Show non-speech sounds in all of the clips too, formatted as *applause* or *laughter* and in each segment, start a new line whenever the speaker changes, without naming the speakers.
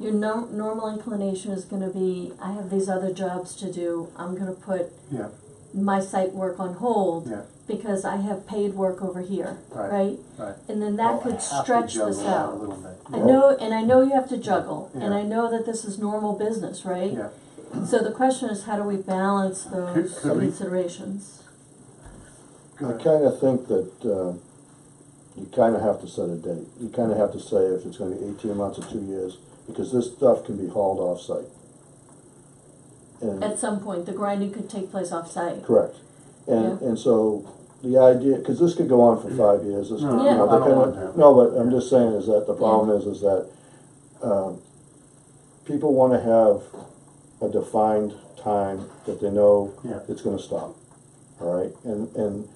Your no, normal inclination is gonna be, I have these other jobs to do, I'm gonna put
Yeah.
my site work on hold
Yeah.
because I have paid work over here,
Right.
right?
Right.
And then that
Well, I
could
have to
stretch
juggle
this
that A
out.
little bit.
I know, and I know you have to juggle,
Yeah.
and I know that this is normal business, right?
Yeah,
So the question is, how do we balance those
could we-
considerations?
go
I
ahead.
kinda think that, uh, you kinda have to set a date, you kinda have to say if it's gonna be eighteen months or two years, because this stuff can be hauled off-site. And,
At some point, the grinding could take place off-site.
correct, and,
Yeah.
and so, the idea, cause this could go on for five years, this, you
No,
Yeah. I
know,
don't
depending
want that.
on, no, but I'm just saying is that the problem is, is that, um, people wanna have a defined time that they know
Yeah.
it's gonna stop, all right? And, and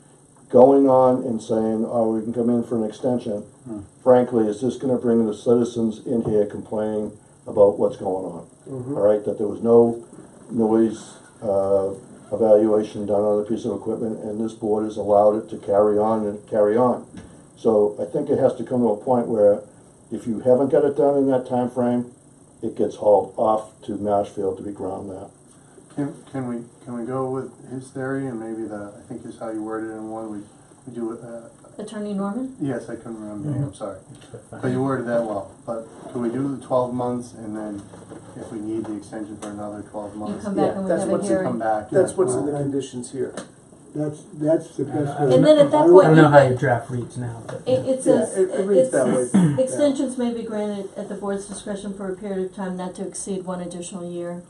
going on and saying, oh, we can come in for an extension,
Hmm.
frankly, is just gonna bring the citizens in here complaining about what's going on.
Mm-hmm.
All right, that there was no noise, uh, evaluation done on the piece of equipment, and this board has allowed it to carry on and carry on. So I think it has to come to a point where if you haven't got it done in that time frame, it gets hauled off to Nashville to be ground there.
Can, can we, can we go with his theory and maybe the, I think is how you worded it in one, we, we do, uh,
Attorney Norman?
yes, I couldn't remember, your
Mm-hmm.
name, I'm sorry. But you worded that well, but can we do the twelve months and then if we need the extension for another twelve
You
months?
come back
yeah,
and we
that's
have a
what's-
Come
hearing.
back.
That's
yeah,
what's in
well,
the conditions here.
That's, that's the best way.
And then at that point-
I don't know how your draft reads now, but.
It, it
Yeah,
says,
it, it
it's,
reads that way.
Extensions may be granted at the board's discretion for a period of time not to exceed one additional year.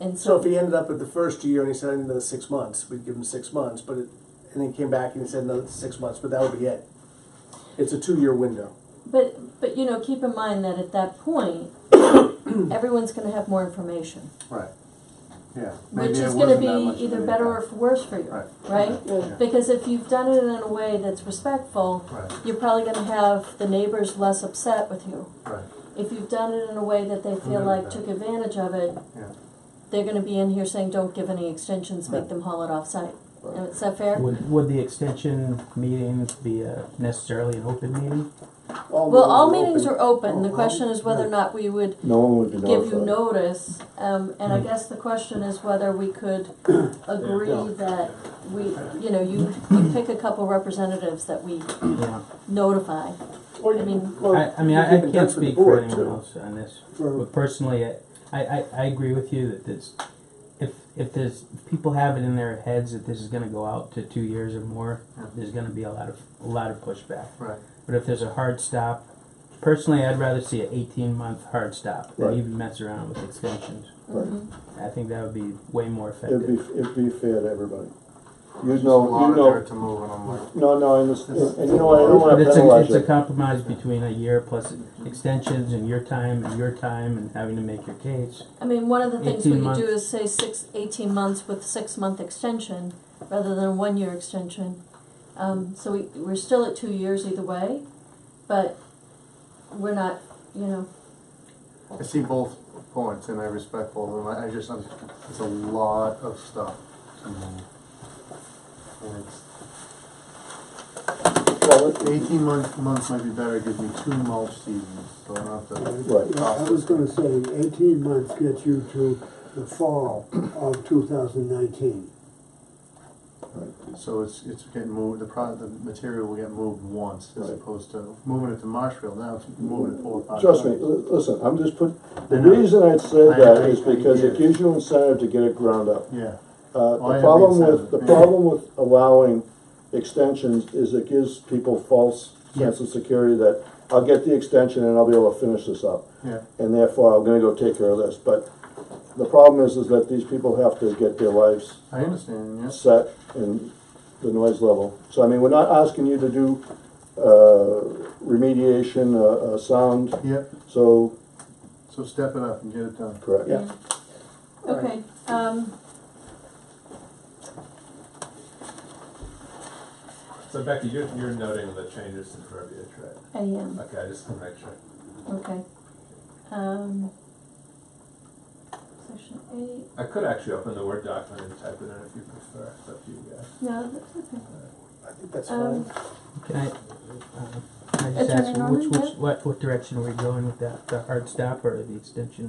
And
So
so,
if he ended up at the first year and he said another six months, we'd give him six months, but it, and then he came back and he said another six months, but that would be it. It's a two-year window.
but, but you know, keep in mind that at that
*coughs*
point, everyone's gonna have more information,
Right, yeah. Maybe
which
it
is gonna
wasn't that much
be
of
either
an
better or
impact.
worse for you,
Right.
right?
Yeah.
Because if you've done it in a way that's respectful,
Right,
you're probably gonna have the neighbors less upset with you.
right,
If you've done it in a way that they feel
Remember
like
that.
took advantage of it,
yeah.
they're gonna be in here saying, don't give any extensions, make them haul it off-site.
Right.
Is that fair?
Would, would the extension meeting be uh, necessarily an open meeting?
Well, all meetings are open, the
Oh,
question is whether or not we would
No one would be notified.
give you notice, um, and I guess the question is whether we *coughs* could agree
Yeah.
that we, you know, you, you pick a couple representatives that we
Yeah.
notify.
Or
I
you
mean-
can- well,
I, I mean,
you
I, I
can
can't
touch with the
speak for
board,
anyone
too.
else on this,
For,
but personally, I, I, I agree with you that this, if, if there's, if people have it in their heads that this is gonna go out to two years or more, there's gonna be a lot of, a lot of pushback.
Right.
But if there's a hard stop, personally, I'd rather see an eighteen month hard stop than
Right.
even mess around with extensions.
Right.
I think that would be way more
It'd be,
effective.
it'd be fair to everybody. You
Just a
know,
lot
you
of
know,
dirt to move and I'm like.
no, no, and this, and you know what, I don't
But
wanna
it's a,
penalize
it's a
you.
compromise between a year plus extensions and your time and your time and having to make your case.
I mean, one of the things we
18
could do is say six, eighteen months with six-month extension, rather than a one-year extension. Um, so we, we're still at two years either way, but we're not, you know,
I see both points and I respect both of them. I, I just, I'm, it's a lot of stuff. to move. And it's-
Well, it-
Eighteen months, months might be better, It gives me two mulch seasons, so I don't have to.
Right.
yeah, I was gonna say, eighteen months gets you to the fall of two thousand nineteen.
So it's, it's getting moved, the pro, the material will get moved once as
Right.
opposed to moving it to Marshfield, now it's moving it four or five
Trust me,
times.
li- listen, I'm just put, the
I know.
reason I'd say
I
that
agree,
is
I
because it
agree.
gives you incentive to get it ground up.
Yeah, I
Uh, the
have
problem
the
with, the
incentive, yeah.
problem with allowing extensions is it gives people false sense of security that I'll get the extension and I'll be able to finish this up,
yeah,
and therefore I'm gonna go take care of this, but the problem is, is that these people have to get their lives
I understand, yes.
set and the noise level. So I mean, we're not asking you to do, uh, remediation, uh, uh, sound,
Yep,
so,
so step it up and get it done.
correct.
Yeah.
okay, um.
So Becky, you're, you're noting the changes to the verbiage, right?
I am,
Okay, I just want to make sure.
okay. Um, section eight,
I could actually open the Word document and type it in if you prefer, it's up to you guys.
no, that's okay.
Uh,
I think that's
Um,
fine.
Can I, uh, can I just
Attorney
ask,
Norman,
which,
yeah?
which, what, what direction are we going with that, the hard stop or the extension?